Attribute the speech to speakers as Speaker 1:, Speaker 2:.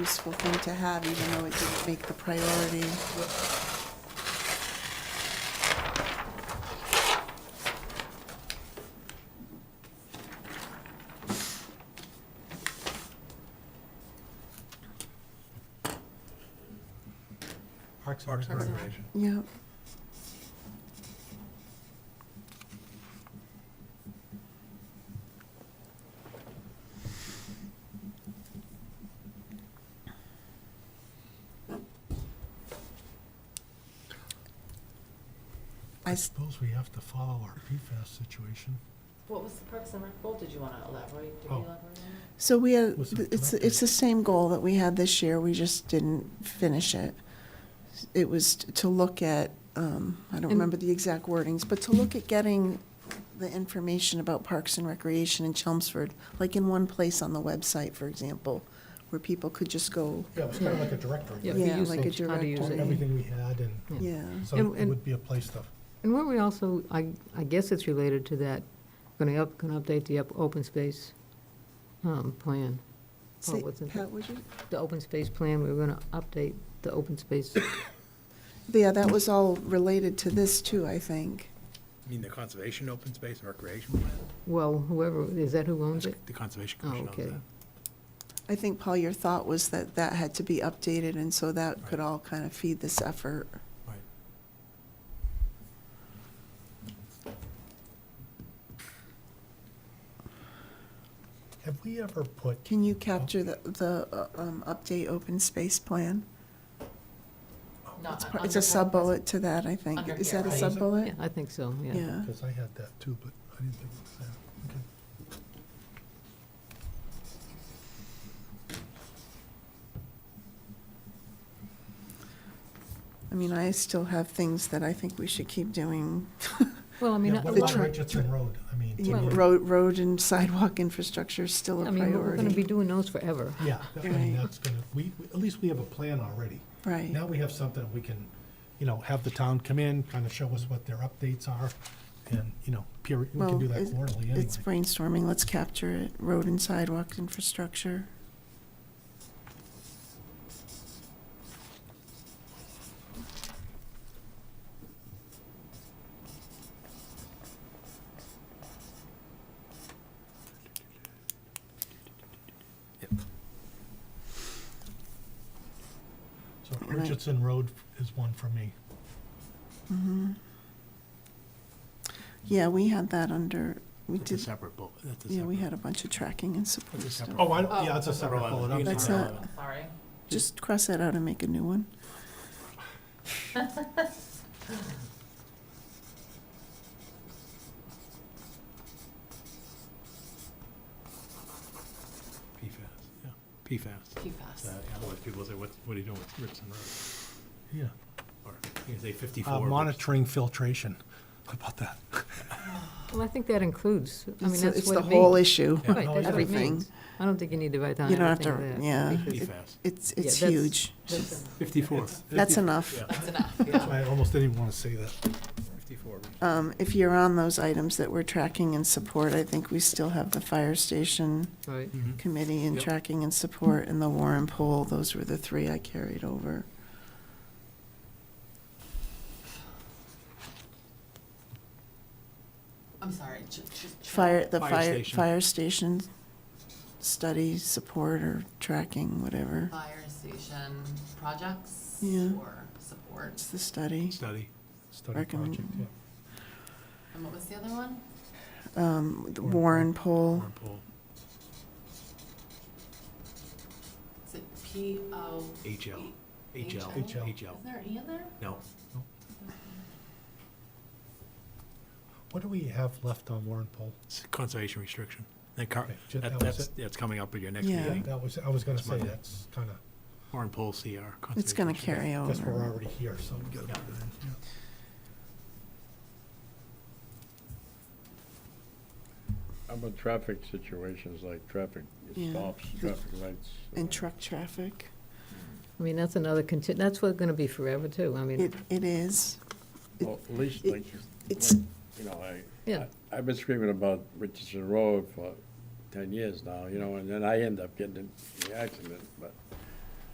Speaker 1: useful thing to have, even though it didn't make the priority.
Speaker 2: Parks
Speaker 3: Parks and
Speaker 1: Recreation.
Speaker 3: Recreation.
Speaker 1: Yeah. I
Speaker 2: I
Speaker 1: s-
Speaker 2: suppose we have to follow our PFAS situation.
Speaker 4: What was the Parks and Rec goal? Did you want to elaborate? Did you
Speaker 2: Oh.
Speaker 4: elaborate on
Speaker 1: So we had,
Speaker 2: Was it
Speaker 1: it's,
Speaker 2: directed?
Speaker 1: it's the same goal that we had this year, we just didn't finish it. It was t- to look at, um, I don't remember the exact wordings, but to look at getting the information about parks and recreation in Chelmsford, like in one place on the website, for example, where people could just go,
Speaker 2: Yeah, it's kind of like a directory.
Speaker 5: Yeah,
Speaker 2: right?
Speaker 5: the
Speaker 1: yeah,
Speaker 5: use
Speaker 1: like a
Speaker 5: of- how to use
Speaker 2: Of
Speaker 1: directory.
Speaker 5: it.
Speaker 2: Everything we had, and
Speaker 5: Yeah.
Speaker 1: yeah.
Speaker 2: so
Speaker 5: And-
Speaker 2: it
Speaker 5: and-
Speaker 2: would be a place to,
Speaker 5: And weren't we also, I, I guess it's related to that, going to up, going to update the up, open space, um, plan. Oh,
Speaker 1: Say-
Speaker 5: what's in-
Speaker 1: Pat, would you?
Speaker 5: The open space plan, we were going to update the open space.
Speaker 1: Yeah, that was all related to this too, I think.
Speaker 3: You mean the conservation open space and recreation plan?
Speaker 5: Well, whoever, is that who owns it?
Speaker 3: The Conservation
Speaker 5: Oh,
Speaker 3: Commission owns
Speaker 5: okay.
Speaker 3: that.
Speaker 1: I think, Paul, your thought was that that had to be updated, and so that could all kind of feed this effort.
Speaker 2: Right. have we ever put,
Speaker 1: Can you capture the, the uh, um, update open space plan?
Speaker 4: it? Not
Speaker 1: Oh, It's
Speaker 5: Uh,
Speaker 4: on-
Speaker 1: par-
Speaker 4: on
Speaker 1: It's
Speaker 4: the
Speaker 1: a
Speaker 4: Parks-
Speaker 1: sub-bullet to that, I think.
Speaker 4: Under
Speaker 1: Is
Speaker 4: here,
Speaker 1: that a
Speaker 2: right?
Speaker 1: sub-bullet?
Speaker 5: Yeah, I think so, yeah.
Speaker 1: Yeah.
Speaker 2: because I had that too, but I didn't think it was there. Okay.
Speaker 1: I mean, I still have things that I think we should keep doing.
Speaker 5: Well, I mean,
Speaker 2: Yeah,
Speaker 5: a
Speaker 2: what
Speaker 1: the
Speaker 2: about
Speaker 5: lot of,
Speaker 1: truck-
Speaker 2: Richardson Road? I mean, to
Speaker 1: Even
Speaker 2: me,
Speaker 1: Road, road and sidewalk infrastructure is still
Speaker 5: I
Speaker 1: a
Speaker 5: mean, we're going to
Speaker 1: priority.
Speaker 5: be doing those forever.
Speaker 2: yeah, I
Speaker 1: Right.
Speaker 2: mean, that's gonna, we, we- at least we have a plan already.
Speaker 1: Right.
Speaker 2: Now we have something we can, you know, have the town come in, kind of show us what their updates are, and, you know, peer, we
Speaker 1: Well,
Speaker 2: can do that
Speaker 1: it-
Speaker 2: quarterly anyway.
Speaker 1: It's brainstorming, let's capture it, road and sidewalk infrastructure.
Speaker 2: So
Speaker 1: Right.
Speaker 2: Richardson Road is one for me.
Speaker 1: Mhm. Yeah, we had that under, we
Speaker 3: That's a
Speaker 1: did,
Speaker 3: separate bullet. That's a
Speaker 1: yeah, we
Speaker 3: separate-
Speaker 1: had a bunch of tracking and support
Speaker 3: That's a
Speaker 1: stuff.
Speaker 3: separate-
Speaker 2: Oh, I, don't- yeah, it's a
Speaker 3: Oh.
Speaker 2: separate bullet. I'm
Speaker 1: That's
Speaker 2: sorry.
Speaker 1: not-
Speaker 4: I'm Sorry.
Speaker 1: Just cross that out and make a new one.
Speaker 3: PFAS, yeah, PFAS.
Speaker 4: Too
Speaker 3: So,
Speaker 4: fast.
Speaker 3: yeah, Otherwise, people say, what, what are you doing with Richardson Road?
Speaker 2: Yeah.
Speaker 3: Or, you can say
Speaker 2: Uh,
Speaker 3: fifty-four. but-
Speaker 2: monitoring filtration. How about that?
Speaker 5: Well, I think that includes, I mean,
Speaker 1: It's-
Speaker 5: that's
Speaker 1: It's
Speaker 5: what
Speaker 1: the
Speaker 5: it
Speaker 1: whole
Speaker 5: means.
Speaker 1: issue.
Speaker 3: Yeah.
Speaker 5: Right, that's what it
Speaker 1: Everything.
Speaker 5: means. I don't think you need to write down
Speaker 1: You don't have
Speaker 5: everything of
Speaker 1: to-
Speaker 5: that.
Speaker 1: yeah.
Speaker 5: because
Speaker 3: PFAS,
Speaker 1: It's,
Speaker 5: Yeah,
Speaker 1: it's
Speaker 5: that's-
Speaker 1: huge.
Speaker 5: that's-
Speaker 3: fifty-four.
Speaker 1: That's enough.
Speaker 3: Yeah,
Speaker 4: That's enough,
Speaker 2: That's
Speaker 4: yeah.
Speaker 2: why I almost didn't even want to say that.
Speaker 3: fifty-four. Richardson.
Speaker 1: Um, If you're on those items that we're tracking and support, I think we still have the fire station
Speaker 5: Right.
Speaker 3: Mhm.
Speaker 1: committee and
Speaker 3: Yep.
Speaker 1: tracking and support and the war and poll. Those were the three I carried over.
Speaker 4: I'm sorry. ju- just-
Speaker 1: Fire, the
Speaker 3: Fire
Speaker 1: fire,
Speaker 3: station.
Speaker 1: fire station study, support or tracking, whatever.
Speaker 4: Fire station projects
Speaker 1: Yeah.
Speaker 4: or support.
Speaker 1: It's the study.
Speaker 3: Study,
Speaker 2: Study
Speaker 1: Recommend-
Speaker 2: project, yeah.
Speaker 4: And what was the other one?
Speaker 1: Um, The
Speaker 2: Warren
Speaker 1: war and poll,
Speaker 3: warrant poll,
Speaker 4: Is it P O? E?
Speaker 3: HL, HL,
Speaker 2: HL.
Speaker 4: Is
Speaker 3: HL.
Speaker 4: there an E in there?
Speaker 3: No,
Speaker 2: What do we have left on Warren Poll?
Speaker 3: it's a conservation restriction. That car,
Speaker 2: Okay, ju-
Speaker 3: that,
Speaker 2: that was
Speaker 3: that's, that's coming up at your next
Speaker 1: Yeah.
Speaker 3: meeting.
Speaker 2: That was, I was going to
Speaker 3: That's
Speaker 2: say,
Speaker 3: Monday.
Speaker 2: that's kind of,
Speaker 3: Warrant poll, CR.
Speaker 1: it's
Speaker 3: conservation
Speaker 1: going to
Speaker 3: restriction.
Speaker 1: carry over.
Speaker 2: guess we're already here, so we got to put it in. yeah.
Speaker 6: How about traffic situations like traffic
Speaker 1: Yeah.
Speaker 6: stops, traffic lights?
Speaker 1: And truck traffic.
Speaker 5: I mean, that's another, conti- that's what going to be forever, too. I mean,
Speaker 1: It, it is.
Speaker 6: Well, at least
Speaker 1: it-
Speaker 6: like,
Speaker 1: It's,
Speaker 6: like, you know, I,
Speaker 5: Yeah.
Speaker 6: I- I've been screaming about Richardson Road for ten years now, you know, and then I end up getting in the accident, but